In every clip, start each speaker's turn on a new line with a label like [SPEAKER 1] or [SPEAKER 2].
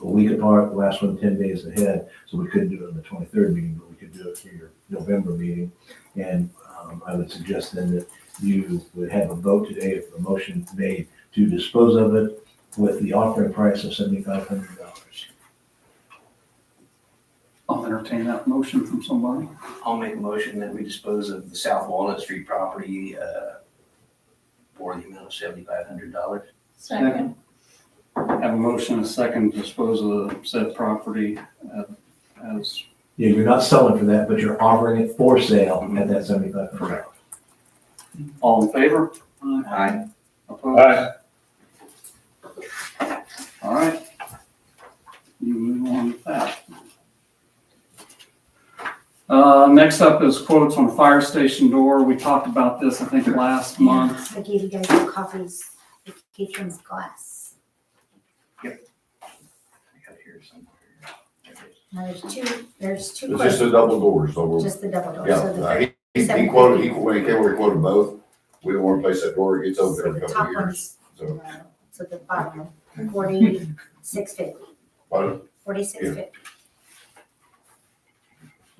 [SPEAKER 1] week apart, the last one ten days ahead, so we couldn't do it on the twenty-third meeting, but we could do it for your November meeting. And, um, I would suggest then that you would have a vote today, if a motion made to dispose of it with the offering price of seventy-five hundred dollars.
[SPEAKER 2] I'll entertain that motion from somebody.
[SPEAKER 3] I'll make a motion that we dispose of the South Walnut Street property, uh, for the amount of seventy-five hundred dollars.
[SPEAKER 4] Second.
[SPEAKER 2] Have a motion, a second, dispose of said property uh, as
[SPEAKER 1] Yeah, you're not selling for that, but you're offering it for sale at that seventy-five hundred dollars.
[SPEAKER 2] all in favor?
[SPEAKER 3] Aye.
[SPEAKER 2] Opposed?
[SPEAKER 5] Aye.
[SPEAKER 2] All right. You move on with that. Uh, next up is quotes on fire station door. We talked about this, I think, last month.
[SPEAKER 4] I gave you guys the copies, the patrons glass.
[SPEAKER 3] I got it here somewhere. There it is.
[SPEAKER 4] Now, there's two, there's two.
[SPEAKER 6] It's just the double doors, so we're,
[SPEAKER 4] Just the double door, so the
[SPEAKER 6] yeah, uh,
[SPEAKER 4] very,
[SPEAKER 6] he, he he quoted, he, when he came, over, he quoted both. We don't wanna place that door, it gets
[SPEAKER 4] so
[SPEAKER 6] open every
[SPEAKER 4] the
[SPEAKER 6] couple
[SPEAKER 4] top
[SPEAKER 6] of years,
[SPEAKER 4] one's,
[SPEAKER 6] so.
[SPEAKER 4] so the bottom, forty-six fifty,
[SPEAKER 6] But
[SPEAKER 4] forty-six
[SPEAKER 6] Yeah.
[SPEAKER 4] fifty.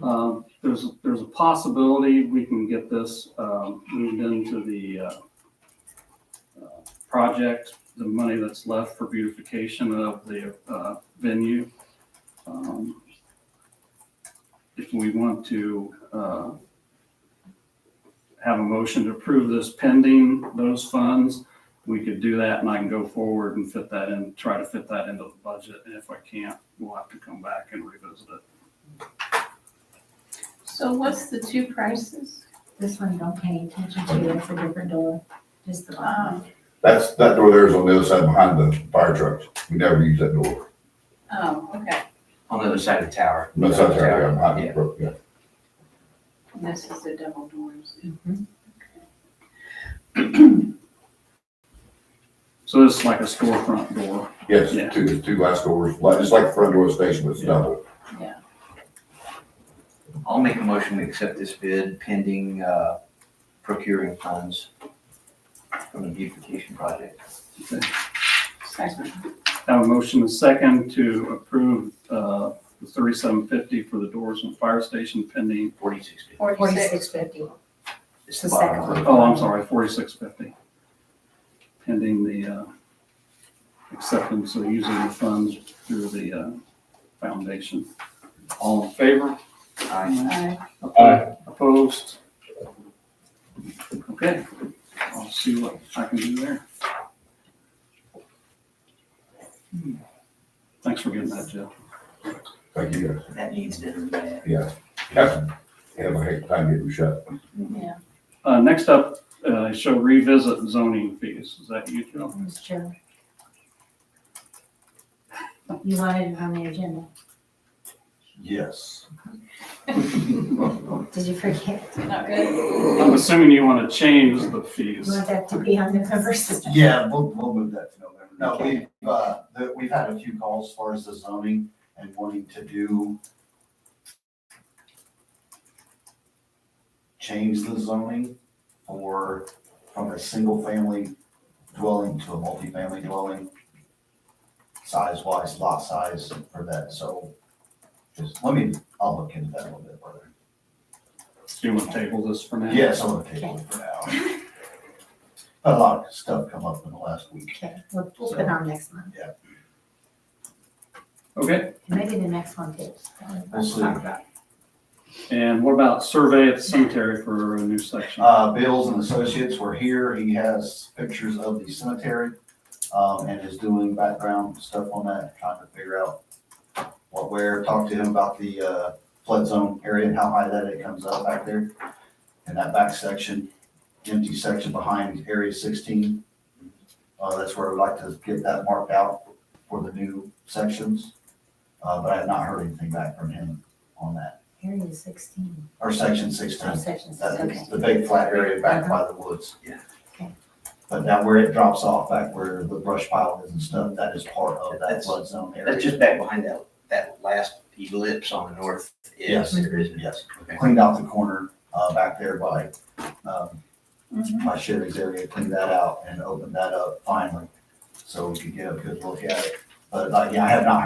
[SPEAKER 2] Uh, there's, there's a possibility we can get this, um, moved into the, uh, uh, project, the money that's left for beautification of the, uh, venue. Um, If we want to, uh, have a motion to approve this pending those funds, we could do that and I can go forward and fit that in, try to fit that into the budget. And if I can't, we'll have to come back and revisit it.
[SPEAKER 7] So what's the two prices?
[SPEAKER 4] This one, don't pay any attention to, it's a different door, just the bottom.
[SPEAKER 7] Um,
[SPEAKER 6] that's, that door there is on the other side behind the fire trucks. We never use that door.
[SPEAKER 7] Oh, okay,
[SPEAKER 3] On the other side of the tower.
[SPEAKER 6] That's out there, yeah, behind
[SPEAKER 3] Yeah.
[SPEAKER 6] the, brook, yeah.
[SPEAKER 7] and this is the double doors.
[SPEAKER 2] So this is like a storefront door. Yeah.
[SPEAKER 6] Yes, two, two glass doors, like, just like the front door of the station, but it's
[SPEAKER 2] Yeah.
[SPEAKER 6] double.
[SPEAKER 3] I'll make a motion to accept this bid pending, uh, procuring funds from the beautification project.
[SPEAKER 7] Second.
[SPEAKER 2] Have a motion and second to approve uh, the thirty-seven fifty for the doors and fire station pending,
[SPEAKER 3] Forty-six. bid.
[SPEAKER 4] Forty-six fifty.
[SPEAKER 3] It's
[SPEAKER 4] The
[SPEAKER 3] the
[SPEAKER 4] second
[SPEAKER 3] bottom
[SPEAKER 4] one.
[SPEAKER 3] one.
[SPEAKER 2] oh, I'm sorry, forty-six fifty. Pending the uh, acceptance of using the funds through the uh, foundation. All in favor?
[SPEAKER 3] Aye.
[SPEAKER 7] Aye.
[SPEAKER 5] Aye.
[SPEAKER 2] Opposed? Okay, I'll see what I can do there. Hmm. Thanks for getting that, Jeff.
[SPEAKER 6] Thank you, guys.
[SPEAKER 3] That needs to be bad.
[SPEAKER 6] Captain, have a heck of a time getting shut.
[SPEAKER 7] Yeah,
[SPEAKER 2] Uh, next up, uh, show revisit zoning fees. Is that you, Joe?
[SPEAKER 4] Mr. Chair. You wanted it on the agenda,
[SPEAKER 6] Yes.
[SPEAKER 4] did you forget?
[SPEAKER 7] not good.
[SPEAKER 2] I'm assuming you want to change the
[SPEAKER 4] You
[SPEAKER 2] fees.
[SPEAKER 4] want that to be on the cover system?
[SPEAKER 8] Yeah, we'll, we'll move that to November. No, we've, uh, the- we've had a few calls as far as the zoning and wanting to do change the zoning for, from a single family dwelling to a multifamily dwelling, size wise, lot size for that, so just, let me, I'll look into that a little bit further.
[SPEAKER 2] Do you want to table this for now?
[SPEAKER 8] Yes, I'm gonna table it for now. A lot of stuff come up in the last week.
[SPEAKER 4] Okay, we'll keep it on next month,
[SPEAKER 2] Okay,
[SPEAKER 4] and maybe the next one too.
[SPEAKER 8] We'll see.
[SPEAKER 4] Talk about it.
[SPEAKER 2] and what about survey at the cemetery for a new section?
[SPEAKER 8] Uh, Bills and Associates were here. He has pictures of the cemetery, um, and is doing background stuff on that, trying to figure out what, where, talked to him about the, uh, flood zone area and how high that it comes up back there. And that back section, empty section behind Area sixteen. Uh, that's where I'd like to get that marked out for the new sections. Uh, but I have not heard anything back from him on that,
[SPEAKER 4] Area sixteen,
[SPEAKER 8] or section
[SPEAKER 4] or
[SPEAKER 8] sixteen.
[SPEAKER 4] section sixteen, okay.
[SPEAKER 8] That's the big flat area back by the woods.
[SPEAKER 3] Yeah.
[SPEAKER 4] Okay.
[SPEAKER 8] But now where it drops off, back where the brush pile is and stuff, that is part of that
[SPEAKER 3] That's-
[SPEAKER 8] flood zone area.
[SPEAKER 3] That's just back behind that, that last ellipse on the north edge
[SPEAKER 8] Yes.
[SPEAKER 3] there, isn't it?
[SPEAKER 8] Yes.
[SPEAKER 3] Okay.
[SPEAKER 8] Cleaned out the corner, uh, back there by, um,
[SPEAKER 7] Mm-hmm.
[SPEAKER 8] my Chevy's area, cleaned that out and opened that up finally. So we could get a good look at it. But like, yeah, I have not